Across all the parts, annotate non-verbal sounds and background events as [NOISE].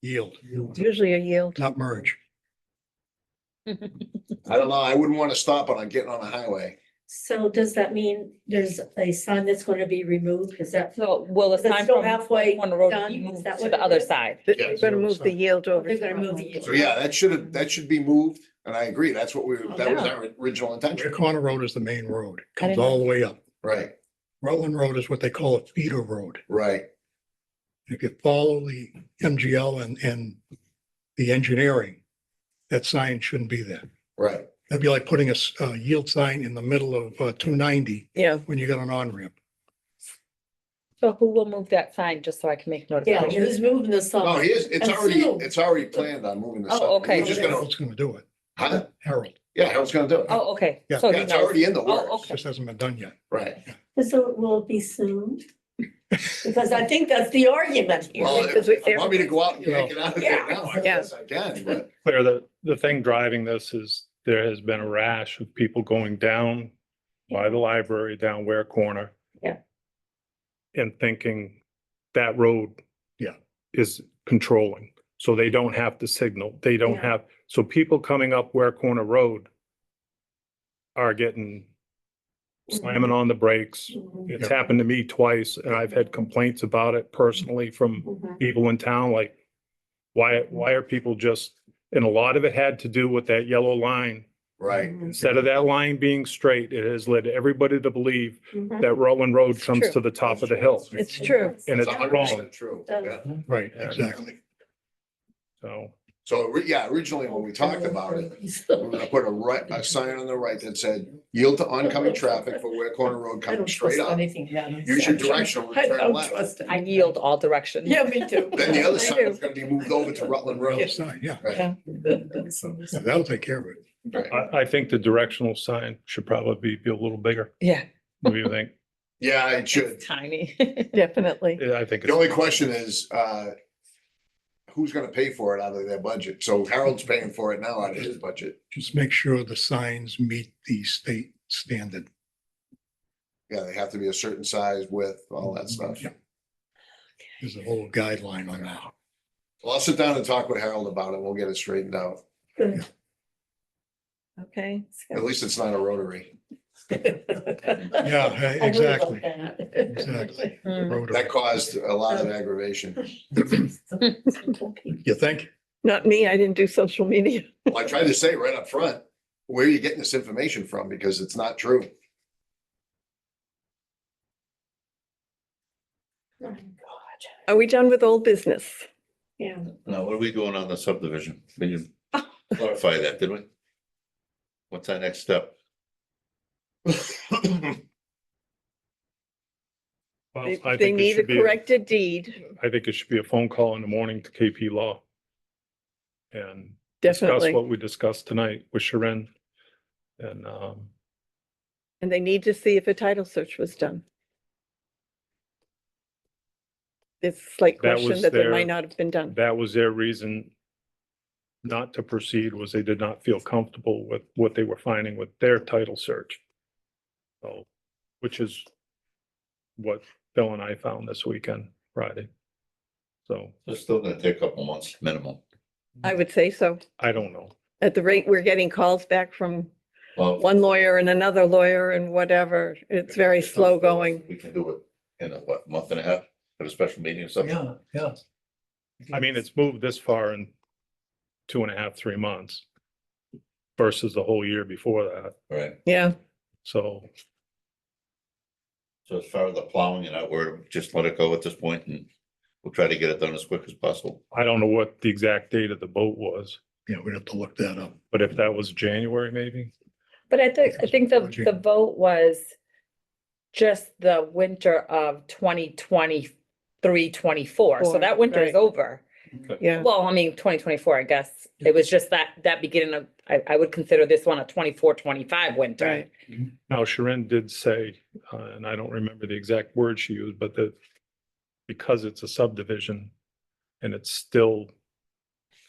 yield, It's usually a yield. not merge. I don't know, I wouldn't want to stop it on getting on the highway. So does that mean there's a sign that's gonna be removed? Is that? So will the Is it sign still from halfway one road done? be Is moved that to what the it other is? side? They're gonna move the yield over. They're to gonna move the Rutland. yield. So yeah, that should have, that should be moved, and I agree, that's what we, Oh, that was Yeah. our original Your intention, corner road is the main road, comes didn't know. all the way up. right, Rutland Road is what they call a feeder road. right, If you follow the MGL and, and the engineering, that sign shouldn't be there. right. That'd be like putting a, s- a yield sign in the middle of uh, two ninety Yeah, when you got an on-ramp. So who will move that sign, just so I can make Yeah, notification? who's moving the sign? No, he is, it's And already, soon. it's already planned on moving this Oh, up. okay. We're just gonna, Harold's gonna do it. huh? Harold, yeah, I was gonna do it. Yeah, Oh, okay. Yeah. So he it's knows. already in the Oh, works, okay. just hasn't been done yet. right. So it will be soon? Because I think that's the argument Well, here. Because if we- if you want me to go out and yank it out of there Yeah. now, I guess I can, but Claire, the, the thing driving this is there has been a rash of people going down by the library, down Ware Corner. Yeah. And thinking that road. Yeah. Is controlling, so they don't have to signal, they don't Yeah. have, so people coming up Ware Corner Road are getting slamming Mm-hmm. on the brakes. Mhm, It's happened to me twice, and I've had complaints about it personally from mhm. people in town, like, why, why are people just, and a lot of it had to do with that yellow line. Right, Mm-hmm. Instead of that line being straight, it has led everybody to believe Mhm. that Rutland Road It's comes true. to the top of the hill. it's true. And it's it's a hundred wrong, percent true, Does- yeah. Right, Yeah. exactly. so. So, re- yeah, originally when we talked about it, [LAUGHS] we we're gonna put a right, a sign on the right that said, yield to oncoming traffic for Ware Corner Road I don't coming straight up. trust Anything. happens. Use your directional [LAUGHS] I and turn don't left. trust it. I yield all directions. Yeah, me too. [LAUGHS] Then the other I side is gonna be moved over to Rutland Road. Sign, yeah, [LAUGHS] do. Yeah, that'll take care of it. Right. I, I think the directional sign should probably be a little bigger, Yeah. what do you think? Yeah, it should. It's tiny. [LAUGHS] Definitely. Yeah, I think. The it's- only question is, uh, who's gonna pay for it out of their budget? So Harold's paying for it now out of his budget. Just make sure the signs meet the state standard. Yeah, they have to be a certain size width, all that stuff. Yeah. There's a whole guideline on that. Well, I'll sit down and talk with Harold about it. We'll get it straightened out. Okay. At least it's not a rotary. Yeah, [LAUGHS] I eh, know exactly, about that. [LAUGHS] exactly. Mm. Hmm. Rotary. That caused a lot Um, of aggravation. You think? Not me, I didn't do social media. Well, I tried to say right up front, where are you getting this information from? Because it's not true. [LAUGHS] Are we done with old business? Yeah. Now, what are we doing on the subdivision? We didn't clarify that, did we? What's our next [LAUGHS] step? Well, They- They I think it need a should be- corrected deed, I think it should be a phone call in the morning to KP Law. And discuss definitely. what we discussed tonight with Sharon. And, um, And they need to see if a title search was done. It's a slight That question was that they their- might not have been done. that was their reason not to proceed was they did not feel comfortable with what they were finding with their title search. So, which is what Bill and I found this weekend, Friday. So It's still gonna take a couple months minimum. I would say so. I don't know. At the rate we're getting calls back from Well, one lawyer and another lawyer and whatever, it's very slow going. We can do it in a, what, month and a half, have a special meeting or something? Yeah, yeah. I mean, it's moved this far in two and a half, three months versus the whole year before that. Right, Yeah, So so as far as the plowing and that, we're just let it go at this point and we'll try to get it done as quick as possible. I don't know what the exact date of the boat was, Yeah, we'd have to look that up. but if that was January, maybe? But I think, I think the, Technology. the vote was just the winter of 2023, 24. So Four, that winter is right. over. yeah. Well, I mean, twenty twenty-four, I guess. It was just that, that beginning of, I, I would consider this one a 24-25 winter. Right. Now, Sharon did say, uh, and I don't remember the exact word she used, but that because it's a subdivision and it's still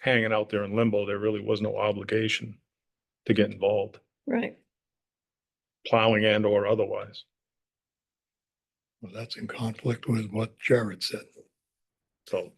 hanging out there in limbo, there really was no obligation to get involved, Right. plowing and or otherwise. Well, that's in conflict with what Jared said. So